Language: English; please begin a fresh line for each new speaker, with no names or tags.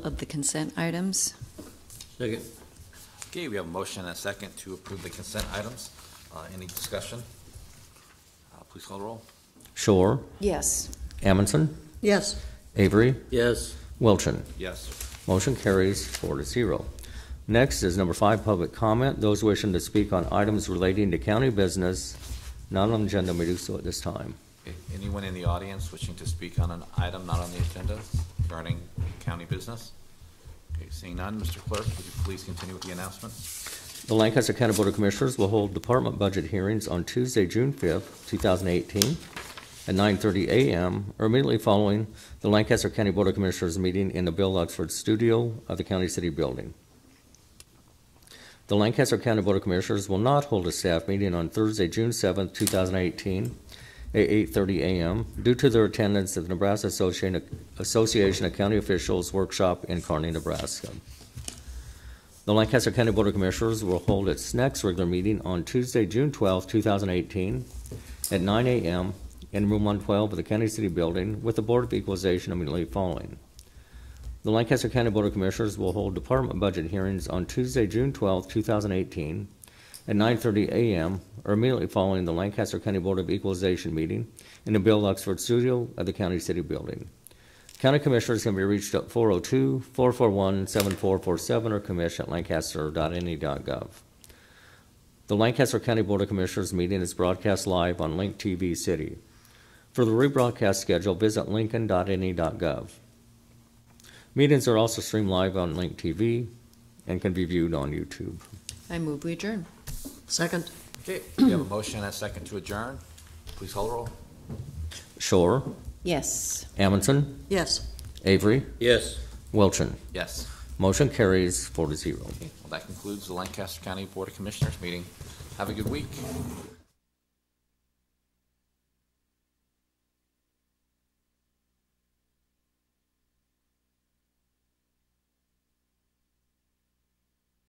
of the consent items.
Second.
Okay, we have a motion and a second to approve the consent items. Uh, Any discussion? Uh, Please call the roll.
Shore,
Yes.
Amundson,
Yes.
Avery,
Yes.
Wilchin.
Yes.
Motion carries four to zero. Next is number five, public comment. Those wishing to speak on items relating to county business, not on agenda, may do so at this time.
Okay, Anyone in the audience wishing to speak on an item not on the agenda regarding county business? Okay, seeing none, Mr. Clerk, would you please continue with the announcement?
The Lancaster County Board of Commissioners will hold department budget hearings on Tuesday, June 5th, 2018, at 9:30 a.m. or immediately following the Lancaster County Board of Commissioners meeting in the Bill Oxford Studio of the County City Building. The Lancaster County Board of Commissioners will not hold a staff meeting on Thursday, June 7th, 2018, at 8:30 a.m. due to their attendance at the Nebraska Association Association of County Officials Workshop in Kearney, Nebraska. The Lancaster County Board of Commissioners will hold its next regular meeting on Tuesday, June 12, 2018, at 9 a.m. in Room 112 of the County City Building with the Board of Equalization immediately following. The Lancaster County Board of Commissioners will hold department budget hearings on Tuesday, June 12, 2018, at 9:30 a.m. or immediately following the Lancaster County Board of Equalization meeting in the Bill Oxford Studio of the County City Building. County Commissioners can be reached at 402-441-7447 or commish@lancaster.ne.gov. E The Lancaster County Board of Commissioners meeting is broadcast live on Link TV City. For the rebroadcast schedule, visit lincoln.ne.gov. E Meetings are also streamed live on Link TV and can be viewed on YouTube.
I move we adjourn.
Second?
Okay, we have a motion and a second to adjourn. Please call the roll.
Shore,
Yes.
Amundson,
Yes.
Avery,
Yes.
Wilchin.
Yes.
Motion carries four to zero.
Okay, well, that concludes the Lancaster County Board of Commissioners meeting. Have a good week.